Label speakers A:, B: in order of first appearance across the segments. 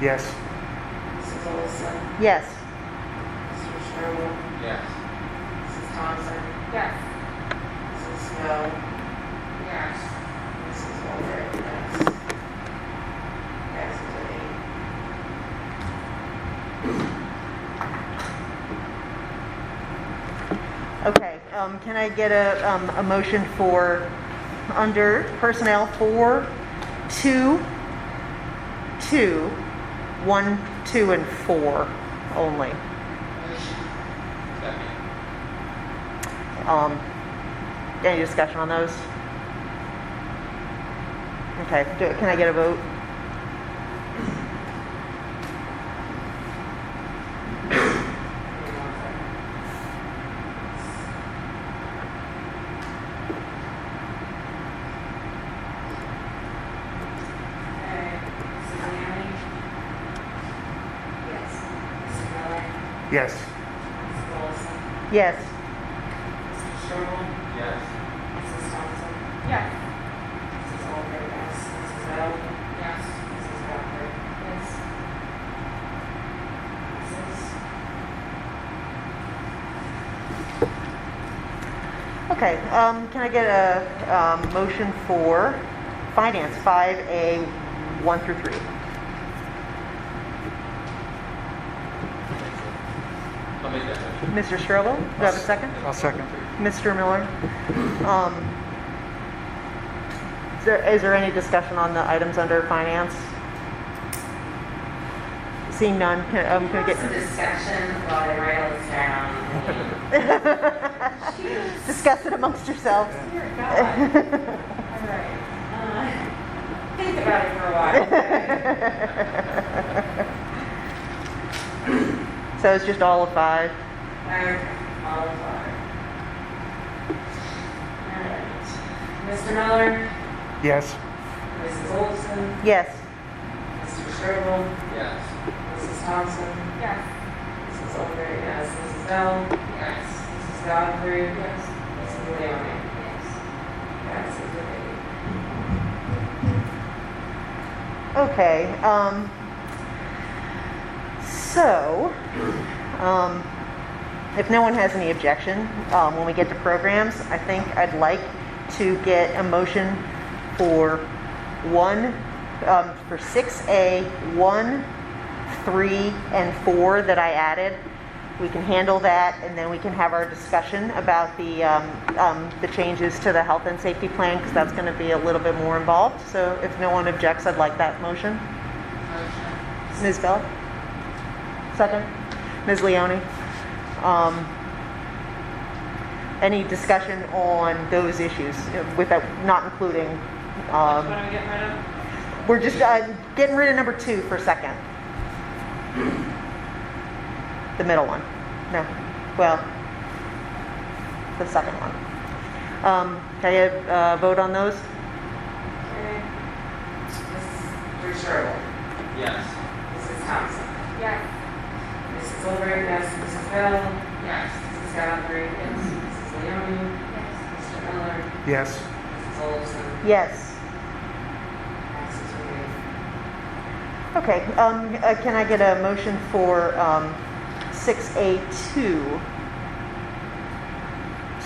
A: Yes.
B: Mrs. Olson,
C: Yes.
B: Mr. Sherwood,
D: Yes.
B: Mrs. Thompson,
E: Yes.
B: Mrs. Snow,
E: Yes.
B: Mrs. Older, yes. Passes with eight.
C: Okay, um, can I get a, um, a motion for, under personnel four, two, two, one, two, and four only?
D: Second.
C: Um, any discussion on those? Okay, do, can I get a vote?
B: Give me one second.
E: Okay. Mrs. Manning? Yes.
B: Mrs. Miller,
A: Yes.
B: Mrs. Olson,
C: Yes.
B: Mr. Sherwood,
D: Yes.
B: Mrs. Thompson,
E: Yes.
B: Mrs. Older, yes. Mrs. Snow,
E: Yes.
B: Mrs. Walker,
E: Yes.
B: Mrs.
C: Okay, um, can I get a, um, motion for finance, five A, one through three?
D: I'll make that motion.
C: Mr. Strobel, do I have a second?
A: I'll second.
C: Mr. Miller? um, Is there, is there any discussion on the items under finance? Seeing none, can, um, can I
B: It's a
C: get,
B: discussion while I write all this down. I
C: discuss it amongst yourselves?
B: mean, Dear God. All right. Uh, Think about it for a while.
C: So it's just all of five?
B: Alright, all of our. All right. Mr. Miller,
A: Yes.
B: Mrs. Olson,
C: Yes.
B: Mr. Sherwood,
D: Yes.
B: Mrs. Thompson,
E: Yes.
B: Mrs. Older, yes. Mrs. Bell,
E: Yes.
B: Mrs. Godfrey,
E: Yes.
B: Mrs. Leoni.
E: Yes.
B: Passes with eight.
C: Okay, um, so, um, if no one has any objection, um, when we get to programs, I think I'd like to get a motion for one, um, for six A, one, three, and four that I added. We can handle that, and then we can have our discussion about the, um, um, the changes to the health and safety plan, because that's gonna be a little bit more involved. So if no one objects, I'd like that motion. Ms. Bell? Second. Ms. Leoni? Um, Any discussion on those issues, uh, without, not including,
E: Which
C: um,
E: one are we getting rid of?
C: we're just uh, getting rid of number two for a second. The middle one. No, well, the second one. Um, Can I get a vote on those?
B: Okay. Mrs. Sherwood,
D: Yes.
B: Mrs. Thompson,
E: Yes.
B: Mrs. Older, yes. Mrs. Bell,
E: Yes.
B: Mrs. Godfrey, yes. Mrs. Leoni,
E: Yes.
B: Mr. Miller,
A: Yes.
B: Mrs. Olson,
C: Yes.
B: passes with eight.
C: Okay, um, uh, can I get a motion for, um, six A two?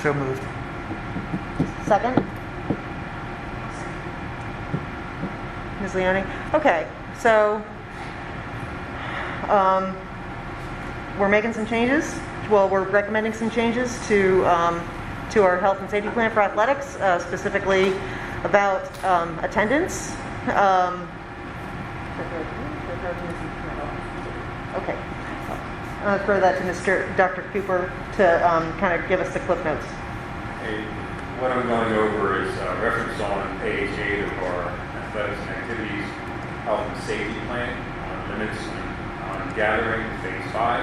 A: So moved.
C: Second? Ms. Leoni? Okay, so, um, we're making some changes. Well, we're recommending some changes to, um, to our health and safety plan for athletics, uh, specifically about, um, attendance. Um, Okay. I'll throw that to Mr., Dr. Cooper to, um, kind of give us the clip notes.
F: Hey, What I'm going over is uh, reference on page eight of our athletics and activities, health and safety plan, on limits on on gathering, phase five.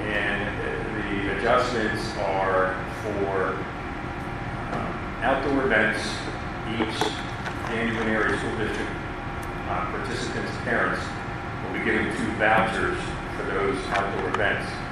F: And uh, the adjustments are for um, outdoor events, each January area school district uh, participants' parents will be given two vouchers for those outdoor events.